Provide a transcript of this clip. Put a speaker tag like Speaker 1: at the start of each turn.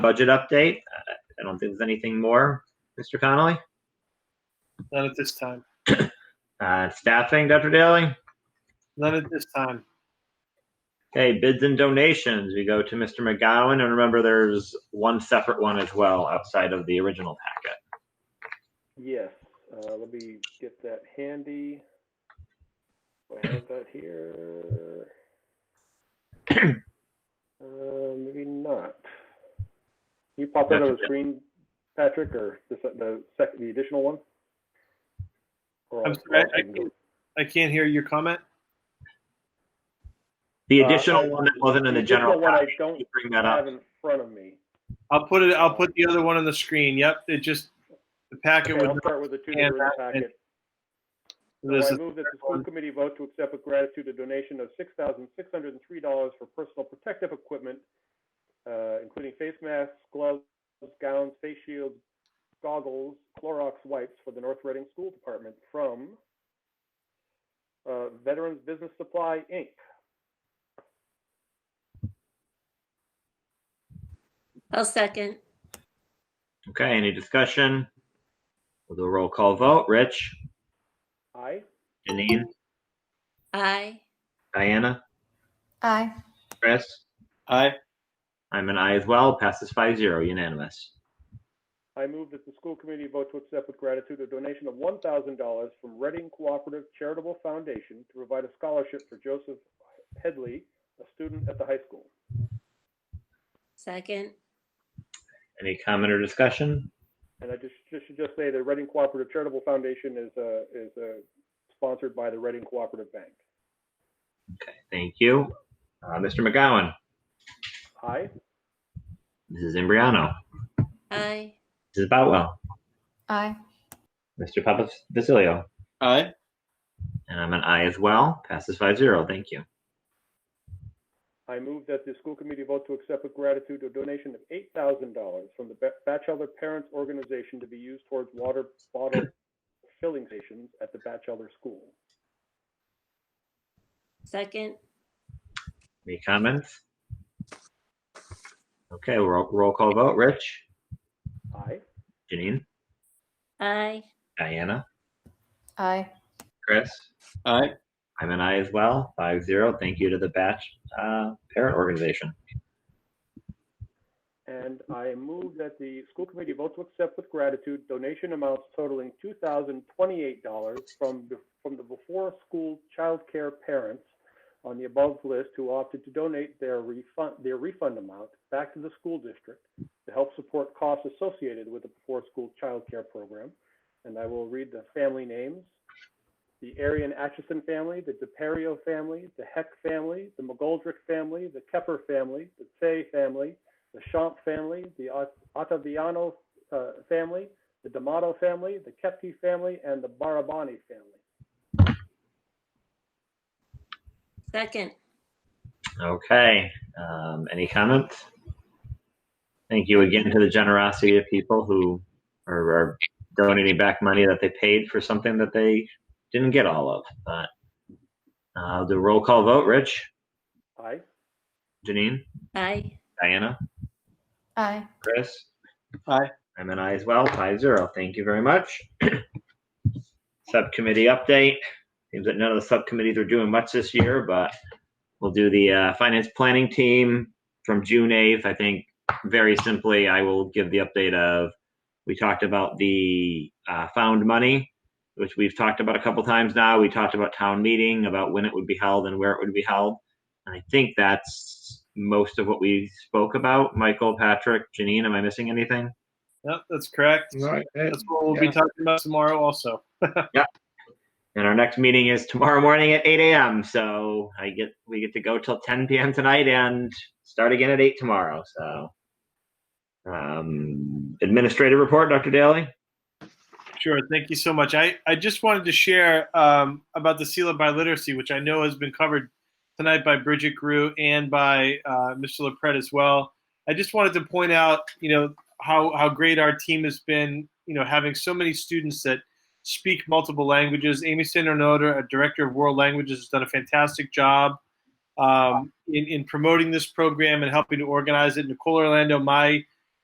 Speaker 1: budget update. Uh, I don't think there's anything more, Mr. Connolly.
Speaker 2: None at this time.
Speaker 1: Uh, Staffing, Dr. Daly.
Speaker 2: None at this time.
Speaker 1: Okay, bids and donations. We go to Mr. McGowan, and remember, there's one separate one as well outside of the original packet.
Speaker 3: Yes, uh, let me get that handy. Do I have that here. Uh, maybe not. Can you pop that on the
Speaker 1: Gotcha.
Speaker 3: screen, Patrick, or the, se- the second, the additional one? Or
Speaker 2: I'm
Speaker 3: I'll-
Speaker 2: sorry,
Speaker 3: I'll-
Speaker 2: I can't- I can't hear your comment.
Speaker 1: The
Speaker 3: Uh,
Speaker 1: additional
Speaker 3: I-
Speaker 1: one that wasn't in the
Speaker 3: additional
Speaker 1: general
Speaker 3: one I
Speaker 1: packet,
Speaker 3: don't
Speaker 1: you bring that
Speaker 3: have
Speaker 1: up.
Speaker 3: in front of me.
Speaker 2: I'll put it, I'll put the other one on the screen. Yep, it just, the packet
Speaker 3: Okay,
Speaker 2: with
Speaker 3: I'll start with the two that
Speaker 2: hand
Speaker 3: are in the
Speaker 2: that and-
Speaker 3: packet. So
Speaker 2: this
Speaker 3: I
Speaker 2: is
Speaker 3: move that the school committee vote to accept with gratitude a donation of six thousand six hundred and three dollars for personal protective equipment, uh, including face masks, gloves, gowns, face shields, goggles, Clorox wipes for the North Reading School Department from uh, Veterans Business Supply, Inc.
Speaker 4: I'll second.
Speaker 1: Okay, any discussion? We'll do a roll call vote. Rich,
Speaker 3: Aye.
Speaker 1: Janine,
Speaker 4: Aye.
Speaker 1: Diana,
Speaker 5: Aye.
Speaker 1: Chris.
Speaker 2: Aye.
Speaker 1: I'm an I as well. Passes five zero, unanimous.
Speaker 3: I move that the school committee vote to accept with gratitude a donation of one thousand dollars from Reading Cooperative Charitable Foundation to provide a scholarship for Joseph Headley, a student at the high school.
Speaker 4: Second.
Speaker 1: Any comment or discussion?
Speaker 3: And I just, just should just say the Reading Cooperative Charitable Foundation is, uh, is, uh, sponsored by the Reading Cooperative Bank.
Speaker 1: Thank you. Uh, Mr. McGowan,
Speaker 3: Aye.
Speaker 1: Mrs. Imbriano,
Speaker 4: Aye.
Speaker 1: Mrs. Boutwell,
Speaker 5: Aye.
Speaker 1: Mr. Papa Basilio,
Speaker 2: Aye.
Speaker 1: and I'm an I as well. Passes five zero. Thank you.
Speaker 3: I move that the school committee vote to accept with gratitude a donation of eight thousand dollars from the Ba- Batchelder Parents Organization to be used towards water bottle filling stations at the Batchelder School.
Speaker 4: Second.
Speaker 1: Any comments? Okay, roll, roll call vote. Rich,
Speaker 3: Aye.
Speaker 1: Janine,
Speaker 4: Aye.
Speaker 1: Diana,
Speaker 5: Aye.
Speaker 1: Chris.
Speaker 2: Aye.
Speaker 1: I'm an I as well. Five zero. Thank you to the batch uh, parent organization.
Speaker 3: And I move that the school committee vote to accept with gratitude donation amounts totaling two thousand twenty-eight dollars from, the- from the before-school childcare parents on the above list who opted to donate their refund, their refund amount back to the school district to help support costs associated with the before-school childcare program. And I will read the family names. The Arian Atchison family, the DePerio family, the Heck family, the McGoldrick family, the Kepper family, the Fay family, the Champ family, the Ot- Ottaviano uh, family, the D'Amato family, the Kepke family, and the Barabani family.
Speaker 4: Second.
Speaker 1: Okay. Um, any comments? Thank you again to the generosity of people who are, are donating back money that they paid for something that they didn't get all of. But uh, the roll call vote. Rich,
Speaker 3: Aye.
Speaker 1: Janine,
Speaker 4: Aye.
Speaker 1: Diana,
Speaker 5: Aye.
Speaker 1: Chris.
Speaker 2: Aye.
Speaker 1: I'm an I as well. Five zero. Thank you very much. Subcommittee update. Seems that none of the subcommittees are doing much this year, but we'll do the uh, finance planning team from June eighth. I think very simply, I will give the update of we talked about the uh, found money, which we've talked about a couple times now. We talked about town meeting, about when it would be held and where it would be held. And I think that's most of what we spoke about. Michael, Patrick, Janine, am I missing anything?
Speaker 2: Yep, that's correct.
Speaker 6: Right. eh,
Speaker 2: That's what we'll be
Speaker 6: Yeah.
Speaker 2: talking about tomorrow also.
Speaker 1: And our next meeting is tomorrow morning at 8 a.m. So I get we get to go till 10 p.m. tonight and start again at 8 tomorrow. So um, administrative report, Dr. Daly.
Speaker 2: Sure, thank you so much. I, I just wanted to share um, about the Seal of Biliteracy, which I know has been covered tonight by Bridget Grew and by uh, Mr. LaPret as well. I just wanted to point out, you know, how, how great our team has been, you know, having so many students that speak multiple languages. Amy Sandernoda, a director of world languages, has done a fantastic job um, in, in promoting this program and helping to organize it. Nicole Orlando, my